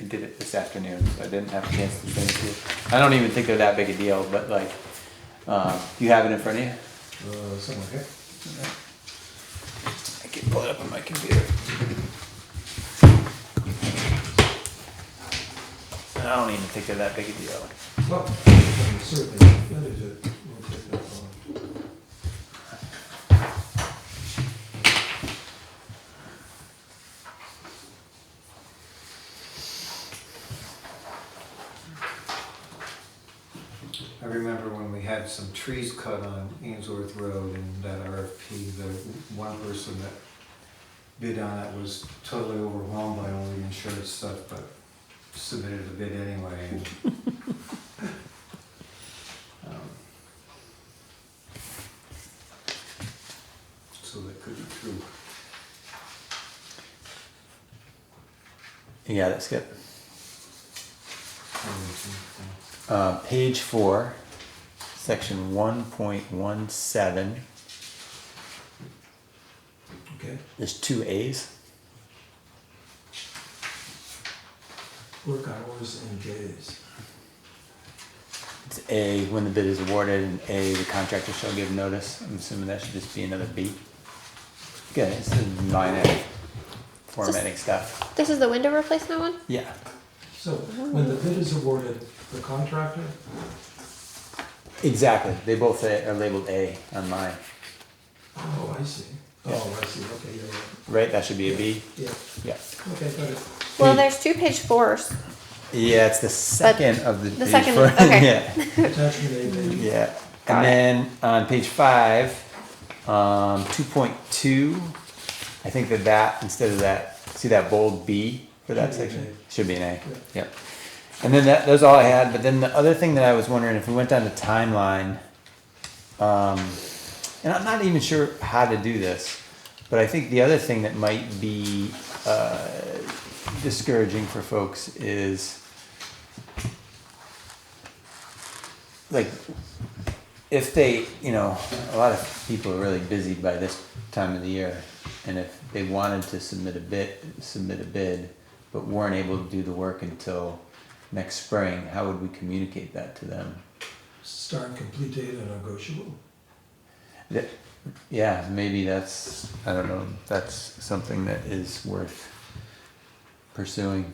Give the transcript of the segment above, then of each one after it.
I did it this afternoon, so I didn't have a chance to send it to you. I don't even think they're that big a deal, but like, uh, you have it in front of you? Uh, somewhere here. I can pull it up on my computer. I don't even think they're that big a deal. Well, um, certainly, that is it. We'll take that one. I remember when we had some trees cut on Ainsworth Road and that RFP, the one person that bid on it was totally overwhelmed by all the insurance stuff, but submitted a bid anyway. and, um, So that could be true. Yeah, that's good. Probably true, yeah. Uh, page four, section one point one seven, Okay, there's two A's. work hours and days. It's A, when the bid is awarded, and A, the contractor shall give notice. I'm assuming that should just be another B. Good, it's the nine A formatting stuff. This is the window replacement one? Yeah, So when the bid is awarded, the contractor, exactly. They both say- are labeled A on mine, oh, I see. Oh, I see, okay, you're right. right? That should be a B? Yeah, Yeah. okay, got it. Well, Page- there's two page fours. Yeah, it's the second of the. the page second four. one, okay. Yeah. Attachment A, maybe. Yeah, Got and it. then on page five, um, two point two, I think that that instead of that, see that bold B for that Should be an section A. should be an A. Yeah. Yep. And then that that's all I had. But then the other thing that I was wondering if we went down the timeline, um, and I'm not even sure how to do this, but I think the other thing that might be uh, discouraging for folks is like if they, you know, a lot of people are really busy by this time of the year, and if they wanted to submit a bid, submit a bid, but weren't able to do the work until next spring, how would we communicate that to them? Start, complete date, and negotiable. That, yeah, maybe that's I don't know. That's something that is worth pursuing,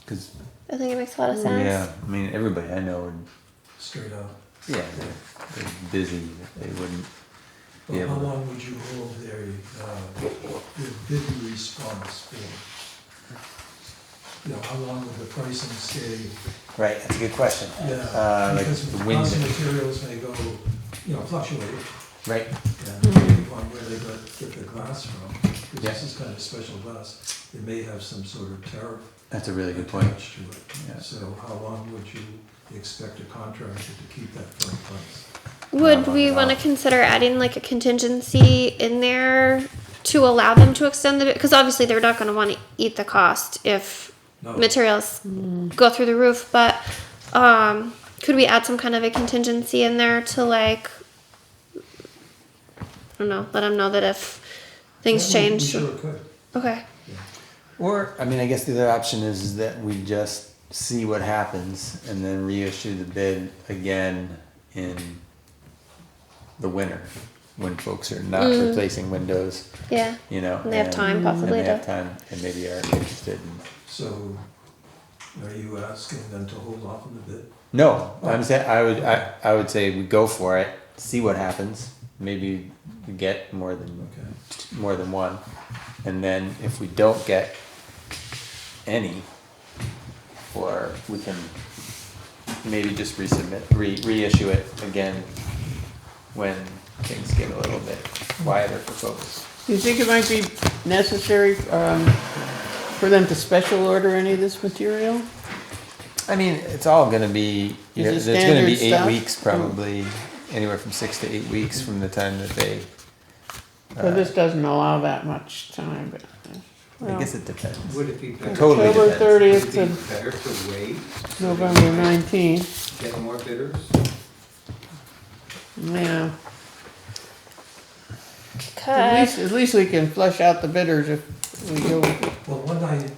because I think it makes a lot of sense. yeah, I mean everybody I know would straight out. yeah they're, they're busy they wouldn't But Yeah, how but- long would you hold their, uh, their bid response for? You know, how long would the pricing stay? right. That's a good question. Yeah, uh, like because the cost of wind, materials may go, you know, fluctuate, right? Hmm. and depending on where they got, get the glass from, because Yeah. this is kind of special glass, it may have some sort of tariff That's a really good point. attached to it. Yeah. So how long would you expect a contractor to keep that firm price? Would Not we on want to that. consider adding like a contingency in there to allow them to extend the because obviously they're not going to want to eat the cost if Oh. No. materials Mm. go through the roof, but um could we add some kind of a contingency in there to like I don't know, let them know that if things Yeah, we- we change. Sure could. Okay. Or, I mean, I guess the other option is, is that we just see what happens and then reissue the bid again in the winter when folks are not replacing windows, Yeah. you know. And Mm. they have time possibly And they have to- time and maybe are interested in. So are you asking them to hold off on the bid? No, I'm saying, I would, I, I would say we go for it, see what happens. Maybe we get more than, Okay. more than one. And then if we don't get any, or we can maybe just resubmit, re, reissue it again when things get a little bit quieter for folks. Do you think it might be necessary um, for them to special order any of this material? I mean, it's all gonna be, you Is know, it there's gonna be standard eight stuff? weeks probably, anywhere from six to eight weeks from the time that they. Well, this doesn't allow that much time, but. uh, I well, guess it depends. Would it be better? Totally October depends. Would thirtieth it be to better to wait? so that November nineteenth, Get more bidders? yeah. At Because Uh, least, at least we can flush out the bidders if we go, Well, one night,